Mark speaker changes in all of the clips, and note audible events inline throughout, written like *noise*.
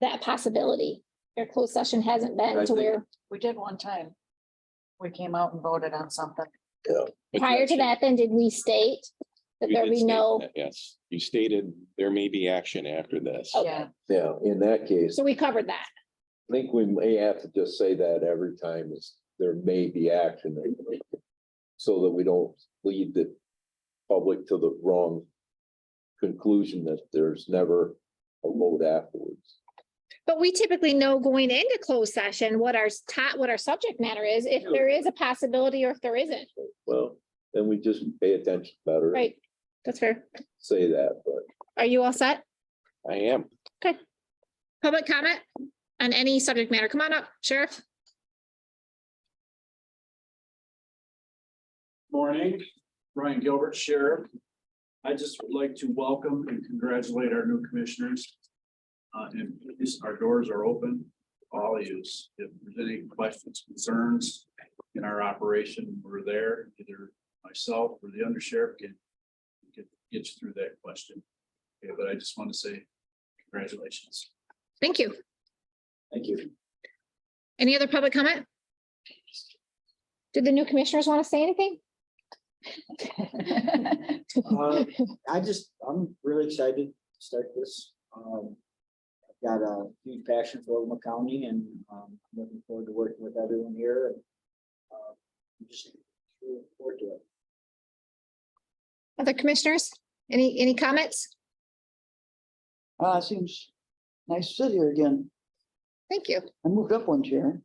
Speaker 1: that possibility. Your closed session hasn't
Speaker 2: I
Speaker 1: been to
Speaker 2: think-
Speaker 1: where,
Speaker 3: We did one time. We came out and voted on something.
Speaker 1: prior to that, then did we state that
Speaker 4: You
Speaker 1: there
Speaker 4: did
Speaker 1: be
Speaker 4: state
Speaker 1: no,
Speaker 4: that, Yes, you stated there may be action after this.
Speaker 1: Okay.
Speaker 3: Yeah,
Speaker 2: Yeah, in that case,
Speaker 1: so we covered that.
Speaker 2: I think we may have to just say that every time is there may be action. So that we don't lead the public to the wrong conclusion that there's never a vote afterwards.
Speaker 1: But we typically know going into closed session what our top, what our subject matter is, if there is a possibility or if there isn't,
Speaker 2: Well, then we just pay attention better. and
Speaker 1: right? That's fair.
Speaker 2: Say that, but
Speaker 1: Are you all set?
Speaker 4: I am.
Speaker 1: Public comment on any subject matter? Come on up, Sheriff.
Speaker 5: Morning, Ryan Gilbert, Sheriff. I just would like to welcome and congratulate our new commissioners. Uh, and please, our doors are open, to all yous. If there's any questions, concerns in our operation, we're there. Either myself or the undersheriff can can get you through that question. Okay, but I just want to say congratulations.
Speaker 1: Thank you.
Speaker 5: Thank you.
Speaker 1: Any other public comment? Did the new commissioners want to say anything?
Speaker 3: *laughs*
Speaker 6: Uh, I just, I'm really excited to start this. Um, I've got a huge passion for Oklahoma County and, um, I'm looking forward to working with everyone here. and, uh, I'm Just looking forward to it.
Speaker 1: Other commissioners? Any, any comments?
Speaker 7: Ah, it seems nice to sit here again.
Speaker 1: Thank you. *laughs*
Speaker 7: I moved up one chair.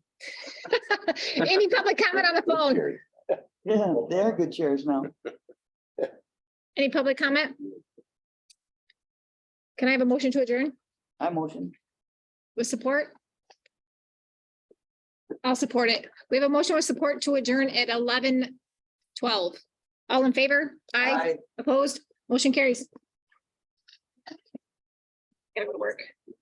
Speaker 1: Any public comment on the phone?
Speaker 7: Yeah, they are good chairs now.
Speaker 1: Any public comment? Can I have a motion to adjourn
Speaker 7: I motion.
Speaker 1: with support? I'll support it. We have a motion with support to adjourn at eleven twelve. All in favor? Aye. Opposed? Motion carries. Gotta go to work.